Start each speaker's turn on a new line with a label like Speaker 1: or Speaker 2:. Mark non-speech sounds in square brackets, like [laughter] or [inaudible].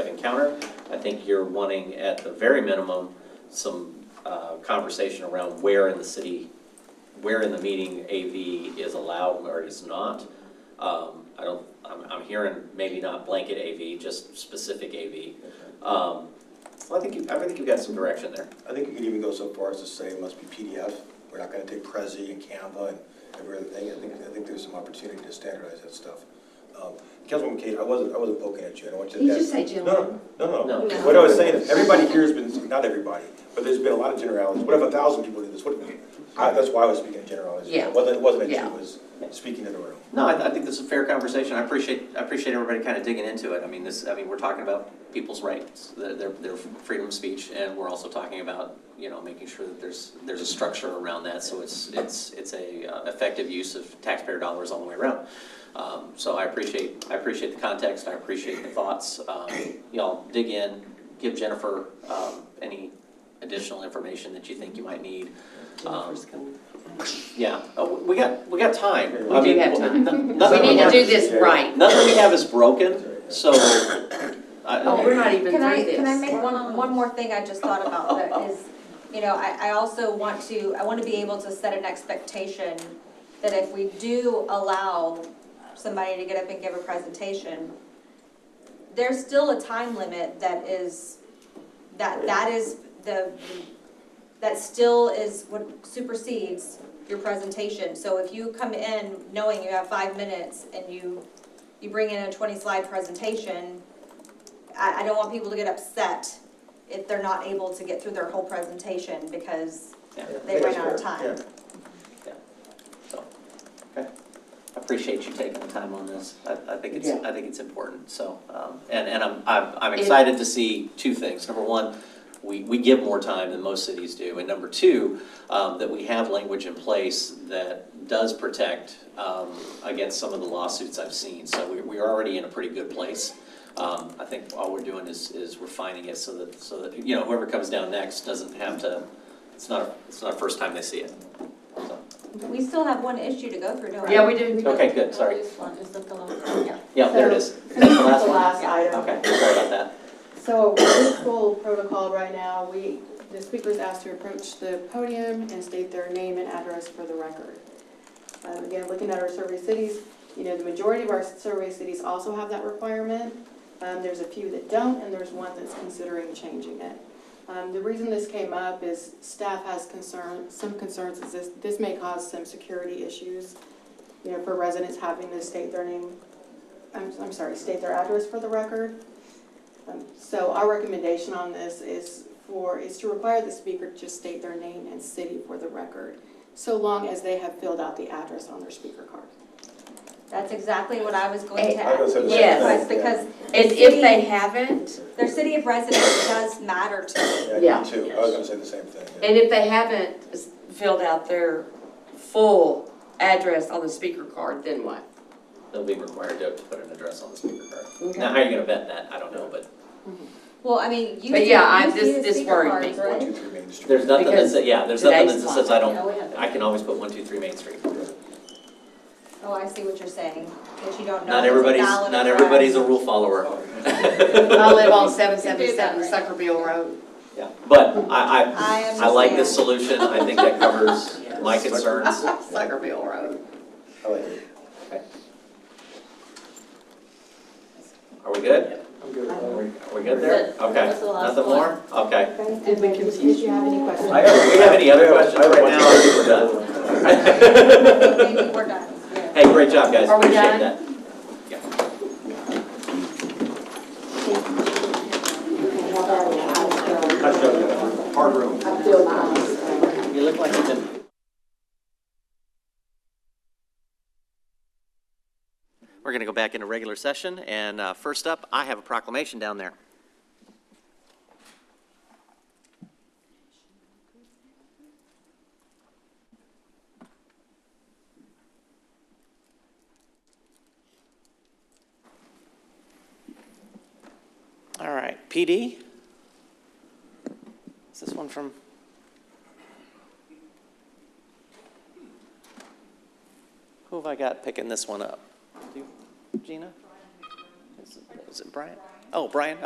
Speaker 1: encounter. I think you're wanting, at the very minimum, some uh, conversation around where in the city, where in the meeting AV is allowed or is not. Um, I don't, I'm, I'm hearing maybe not blanket AV, just specific AV. Um, Well, I think, you- I think you've got some direction there.
Speaker 2: I think you could even go so far as to say it must be PDF. We're not gonna take Prezi and Canva and every other thing. I think, I think there's some opportunity to standardize that stuff. Um, Councilwoman Cade, I wasn't, I wasn't poking at you, I don't want you to.
Speaker 3: You just say gentlemen.
Speaker 2: No, no, no,
Speaker 1: No.
Speaker 2: no. What I was saying is, everybody here has been, not everybody, but there's been a lot of generalities. What if a thousand people do this? What if, I, that's why I was speaking in generalities.
Speaker 3: Yeah.
Speaker 2: It wasn't, it wasn't that
Speaker 3: Yeah.
Speaker 2: you was speaking to the room.
Speaker 1: No, I, I think this is a fair conversation. I appreciate, I appreciate everybody kind of digging into it. I mean, this, I mean, we're talking about people's rights, their, their, their freedom of speech, and we're also talking about, you know, making sure that there's, there's a structure around that, so it's, it's, it's a uh, effective use of taxpayer dollars all the way around. Um, so I appreciate, I appreciate the context, I appreciate the thoughts. Um, y'all dig in, give Jennifer, um, any additional information that you think you might need. Um,
Speaker 3: Jennifer's coming.
Speaker 1: Yeah, Oh, we got, we got time.
Speaker 2: We
Speaker 1: I
Speaker 3: do
Speaker 1: mean,
Speaker 3: have time.
Speaker 1: no-
Speaker 3: We [laughs]
Speaker 1: nothing
Speaker 3: need to
Speaker 1: we're-
Speaker 3: do this right.
Speaker 1: Nothing we have is broken, so. I-
Speaker 3: Oh, we're not even
Speaker 4: Can I-
Speaker 3: through this.
Speaker 4: Can I make one, one more thing I just thought about that is, you know, I, I also want to, I want to be able to set an expectation that if we do allow somebody to get up and give a presentation, there's still a time limit that is, that, that is the, that still is what supersedes your presentation. So if you come in knowing you have five minutes and you, you bring in a twenty-slide presentation, I, I don't want people to get upset if they're not able to get through their whole presentation because
Speaker 1: Yeah,
Speaker 4: they ran out of
Speaker 2: That's fair.
Speaker 4: time.
Speaker 2: Yeah.
Speaker 1: so, okay. I Appreciate you taking the time on this. I, I think it's,
Speaker 3: Yeah.
Speaker 1: I think it's important, so. um, And, and I'm, I'm, I'm excited to see two things. Number one, we, we give more time than most cities do. And number two, um, that we have language in place that does protect um, against some of the lawsuits I've seen. So we, we're already in a pretty good place. Um, I think all we're doing is, is refining it so that, so that, you know, whoever comes down next doesn't have to, it's not, it's not the first time they see it. So,
Speaker 4: We still have one issue to go through, don't we?
Speaker 3: Yeah, we do.
Speaker 1: Okay, good, sorry.
Speaker 5: This one, is that the last one? Yeah.
Speaker 1: Yeah, there it is.
Speaker 5: So,
Speaker 1: That's the
Speaker 5: the
Speaker 1: last
Speaker 5: [laughs]
Speaker 1: one?
Speaker 5: last item.
Speaker 1: Okay, sorry about that.
Speaker 5: So this full protocol right now, we, the speaker's asked to approach the podium and state their name and address for the record. Um, Again, looking at our survey cities, you know, the majority of our survey cities also have that requirement. Um, There's a few that don't, and there's one that's considering changing it. Um, The reason this came up is staff has concern, some concerns is this, this may cause some security issues, you know, for residents having to state their name, I'm, I'm sorry, state their address for the record. Um, So our recommendation on this is for, is to require the speaker to just state their name and city for the record, so long as they have filled out the address on their speaker card.
Speaker 4: That's exactly what I was going to
Speaker 2: I was
Speaker 4: ask.
Speaker 2: gonna
Speaker 3: say the same
Speaker 4: Yes,
Speaker 2: thing, yeah.
Speaker 4: because
Speaker 3: And if they haven't,
Speaker 4: their city of residence does matter to me.
Speaker 2: Yeah,
Speaker 3: Yeah.
Speaker 2: me too. I was gonna say the same thing. yeah.
Speaker 3: and if they haven't s- filled out their full address on the speaker card, then what?
Speaker 1: They'll be required to to put an address on the speaker card. Now, how are you gonna vet that? I don't know, but
Speaker 4: Well, I mean, you
Speaker 3: But
Speaker 4: see,
Speaker 3: yeah, I-
Speaker 4: you see
Speaker 3: this-
Speaker 4: the
Speaker 3: this
Speaker 4: speaker
Speaker 3: worried
Speaker 4: cards,
Speaker 3: me.
Speaker 2: One,
Speaker 4: right?
Speaker 2: two, three Main Street.
Speaker 1: there's nothing that
Speaker 3: Because
Speaker 1: says, yeah, there's nothing that
Speaker 3: today's
Speaker 1: says I
Speaker 5: Yeah,
Speaker 1: don't,
Speaker 5: we have-
Speaker 1: I can always put one, two, three Main Street.
Speaker 4: Oh, I see what you're saying, that you don't know.
Speaker 1: Not
Speaker 4: if it's a
Speaker 1: everybody's,
Speaker 4: valid
Speaker 1: not
Speaker 4: address.
Speaker 1: everybody's a rule follower. [laughs]
Speaker 3: I live on seven
Speaker 5: seven seven
Speaker 3: Suckerville Road.
Speaker 1: Yeah, But I, I,
Speaker 4: I
Speaker 1: I like this solution.
Speaker 4: understand.
Speaker 1: I think that covers my concerns.
Speaker 3: Suckerville Road.
Speaker 2: I like it.
Speaker 1: Are we good?
Speaker 6: I'm good.
Speaker 1: Are we are we good there? Okay,
Speaker 5: That's the last
Speaker 1: nothing more? Okay. [laughs]
Speaker 5: Did we confuse? Did you have any questions?
Speaker 1: I, do we have any other questions
Speaker 2: I have
Speaker 1: right
Speaker 2: one
Speaker 1: now?
Speaker 2: more.
Speaker 1: I think we're done.
Speaker 4: Maybe we're done, yeah.
Speaker 1: Hey, great job, guys.
Speaker 3: Are we
Speaker 1: Appreciate
Speaker 3: done?
Speaker 1: that.
Speaker 2: Hard room.
Speaker 5: I feel my eyes.
Speaker 1: You look like you've been We're going to go back into regular session, and uh, first up, I have a proclamation down there. All right, PD? Is this one from? Who have I got picking this one up? Do you- Gina? Is it- Is it Brian? Oh, Brian,